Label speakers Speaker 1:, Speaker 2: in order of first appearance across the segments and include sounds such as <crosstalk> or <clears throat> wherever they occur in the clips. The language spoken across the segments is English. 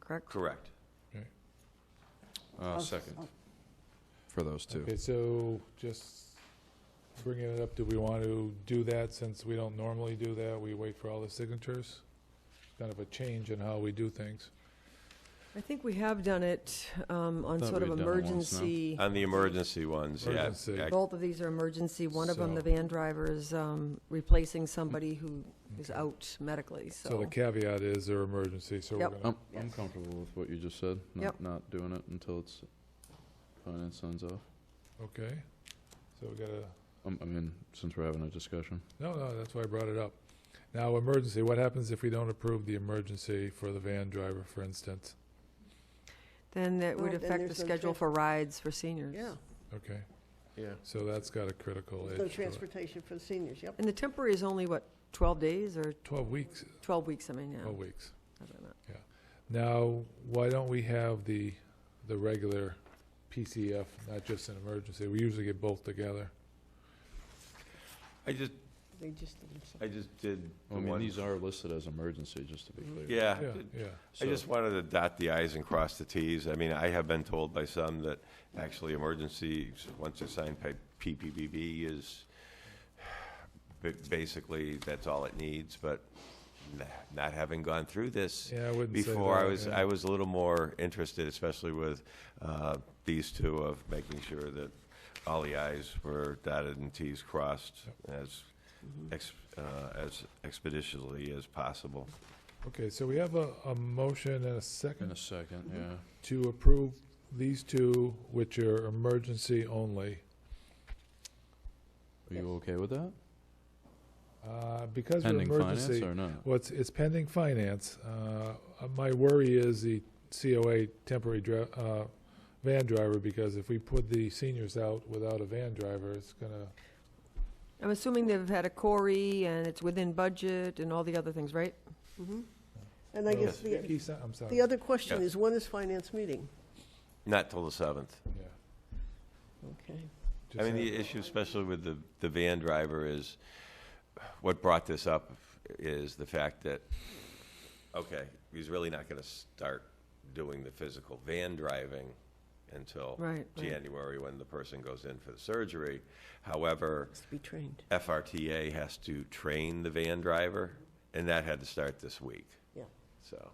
Speaker 1: correct?
Speaker 2: Correct.
Speaker 3: Right.
Speaker 1: Oh,
Speaker 4: Oh,
Speaker 2: Uh, Second, for those two.
Speaker 3: Okay, so just bringing it up, do we want to do that since we don't normally do that? We wait for all the signatures? Kind of a change in how we do things.
Speaker 1: I think we have done it um, on
Speaker 4: Thought
Speaker 1: sort of
Speaker 4: we had done it once, no?
Speaker 1: emergency,
Speaker 2: On the emergency ones, yeah.
Speaker 3: Emergency.
Speaker 2: Ac-
Speaker 1: both of these are emergency. One of them, the
Speaker 3: So-
Speaker 1: van driver is um, replacing somebody who is
Speaker 3: Okay.
Speaker 1: out medically,
Speaker 3: So the
Speaker 1: so.
Speaker 3: caveat is they're emergency, so we're
Speaker 1: Yep.
Speaker 2: Oh.
Speaker 3: gonna,
Speaker 4: I'm, I'm comfortable with what you just said,
Speaker 1: Yep.
Speaker 4: not, not doing it until it's, finance signs off.
Speaker 3: okay? So we gotta,
Speaker 4: Um, I mean, since we're having a discussion.
Speaker 3: no, no, that's why I brought it up. Now, emergency, what happens if we don't approve the emergency for the van driver, for instance?
Speaker 1: Then that would
Speaker 5: Well, then
Speaker 1: affect the
Speaker 5: there's no
Speaker 1: schedule
Speaker 5: trans-
Speaker 1: for rides for seniors.
Speaker 5: Yeah,
Speaker 3: Okay,
Speaker 4: Yeah.
Speaker 3: so that's got a critical
Speaker 5: there's no
Speaker 3: edge to it.
Speaker 5: transportation for the seniors, yep.
Speaker 1: And the temporary is only, what, 12 days or
Speaker 3: Twelve weeks,
Speaker 1: 12 weeks, I mean, yeah.
Speaker 3: twelve weeks.
Speaker 1: I don't know.
Speaker 3: Now, why don't we have the, the regular PCF, not just an emergency? We usually get both together.
Speaker 2: I just,
Speaker 5: They just didn't sign.
Speaker 2: I just did the
Speaker 4: I mean,
Speaker 2: one,
Speaker 4: these are listed as emergency, just to be clear.
Speaker 2: Oh, yeah.
Speaker 3: Yeah, yeah.
Speaker 2: I just wanted to dot the i's and cross the t's. I mean, I have been told by some that actually emergencies, once it's signed by PPPB, is ba- basically, that's all it needs, but nah, not having gone through this,
Speaker 3: Yeah, I wouldn't say
Speaker 2: before I
Speaker 3: that,
Speaker 2: was
Speaker 3: yeah.
Speaker 2: I was a little more interested, especially with uh, these two, of making sure that all the i's were dotted and t's crossed as
Speaker 3: Mm-hmm.
Speaker 2: ex, uh, as expeditiously as possible.
Speaker 3: Okay, so we have a, a motion and a
Speaker 4: In a
Speaker 3: second
Speaker 4: second, yeah.
Speaker 2: Mm-hmm.
Speaker 3: to approve these two, which are emergency only.
Speaker 4: Are you okay with that?
Speaker 3: Uh, Because we're
Speaker 4: Pending finance
Speaker 3: emergency,
Speaker 4: or not?
Speaker 3: well, it's, it's pending finance. Uh, uh, My worry is the COA temporary dri- uh, van driver, because if we put the seniors out without a van driver, it's gonna,
Speaker 1: I'm assuming they've had a Corey and it's within budget and all the other things, right?
Speaker 5: Mhm. And I guess
Speaker 3: Well,
Speaker 5: the,
Speaker 3: he's not- I'm sorry.
Speaker 5: the other question
Speaker 2: Yeah.
Speaker 5: is, when is finance meeting?
Speaker 2: Not till the seventh.
Speaker 3: Yeah.
Speaker 5: Okay.
Speaker 2: I
Speaker 3: Just
Speaker 2: mean,
Speaker 3: have-
Speaker 2: the issue, especially with the, the van driver, is what brought this up is the fact that, okay, he's really not going to start doing the physical van driving until
Speaker 1: Right, right.
Speaker 2: January when the person goes in for the surgery. However,
Speaker 5: Has to be trained.
Speaker 2: FRTA has to train the van driver, and that had to start this week.
Speaker 5: Yeah.
Speaker 2: So,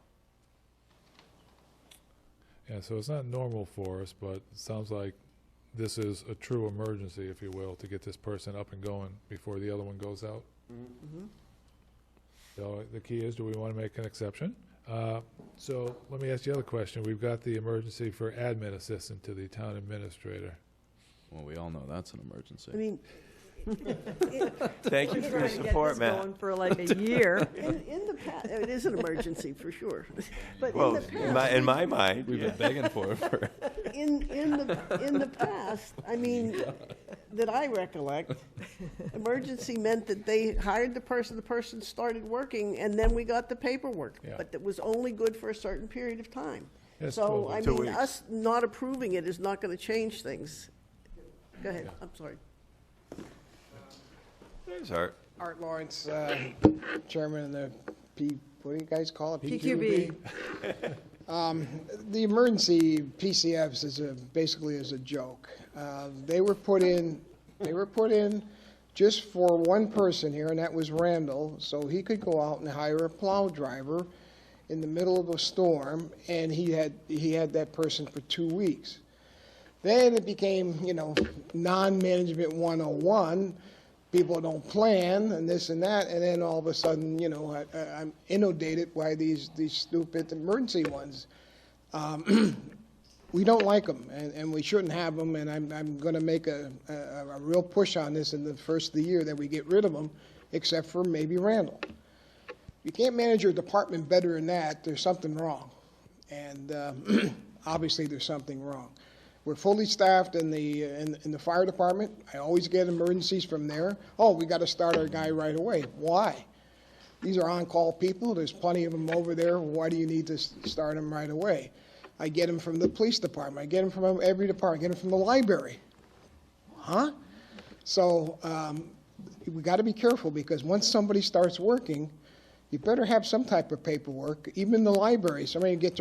Speaker 3: Yeah, so it's not normal for us, but it sounds like this is a true emergency, if you will, to get this person up and going before the other one goes out.
Speaker 5: Mhm.
Speaker 3: So the key is, do we want to make an exception? Uh, So let me ask you the other question. We've got the emergency for admin assistant to the town administrator.
Speaker 4: Well, we all know that's an
Speaker 5: I
Speaker 4: emergency.
Speaker 5: mean,
Speaker 2: thank you for your support, Matt.
Speaker 1: For like a <laughs> year.
Speaker 5: in, in the past, it is an emergency for sure, <laughs> but in
Speaker 2: Well,
Speaker 5: the
Speaker 2: in my,
Speaker 5: past,
Speaker 2: in my mind,
Speaker 4: We've been begging for it for,
Speaker 5: in, in the, in the past, I mean, that I recollect, emergency meant that they hired the person, the person started working, and then we got the paperwork.
Speaker 3: Yeah.
Speaker 5: But it was only good for a certain period of time.
Speaker 3: Yes,
Speaker 5: So,
Speaker 3: totally.
Speaker 5: I
Speaker 2: Two
Speaker 5: mean,
Speaker 2: weeks.
Speaker 5: us not approving it is not going to change things. Go ahead, I'm sorry.
Speaker 2: There's Art.
Speaker 6: Art Lawrence, uh, chairman of the P, what do you guys call it?
Speaker 1: PQB.
Speaker 6: Um, The emergency PCFs is a, basically is a joke. Uh, They were put in, they were put in just for one person here, and that was Randall, so he could go out and hire a plow driver in the middle of a storm, and he had, he had that person for two weeks. Then it became, you know, non-management 101. People don't plan and this and that, and then all of a sudden, you know, I, I- I'm inundated by these, these stupid emergency ones. Um, <clears throat> we don't like them, and, and we shouldn't have them, and I'm, I'm going to make a, a, a real push on this in the first of the year that we get rid of them, except for maybe Randall. If you can't manage your department better than that, there's something wrong. And uh, <clears throat> obviously, there's something wrong. We're fully staffed in the, in in the fire department. I always get emergencies from there. Oh, we got to start our guy right away. Why? These are on-call people, there's plenty of them over there, why do you need to s- start them right away? I get them from the police department, I get them from every department, I get them from the library. Huh? So, um, we gotta be careful, because once somebody starts working, you better have some type of paperwork, even in the library, somebody gets their